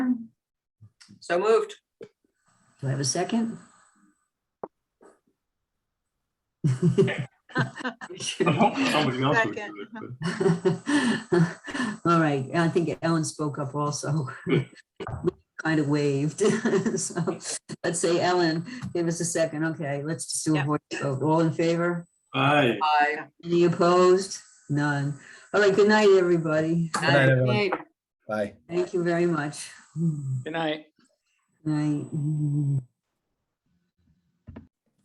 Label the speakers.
Speaker 1: So moved.
Speaker 2: Do I have a second?
Speaker 3: I'm hoping somebody else would do it, but
Speaker 2: All right, I think Ellen spoke up also. Kind of waved. So let's say Ellen, give us a second. Okay, let's just do a
Speaker 4: Yeah.
Speaker 2: voice vote. All in favor?
Speaker 3: aye.
Speaker 1: Aye.
Speaker 2: Any opposed? None. All right, good night, everybody.
Speaker 5: Good night, everyone.
Speaker 1: Aye.
Speaker 5: Bye.
Speaker 2: Thank you very much.
Speaker 6: Good night.
Speaker 2: Night.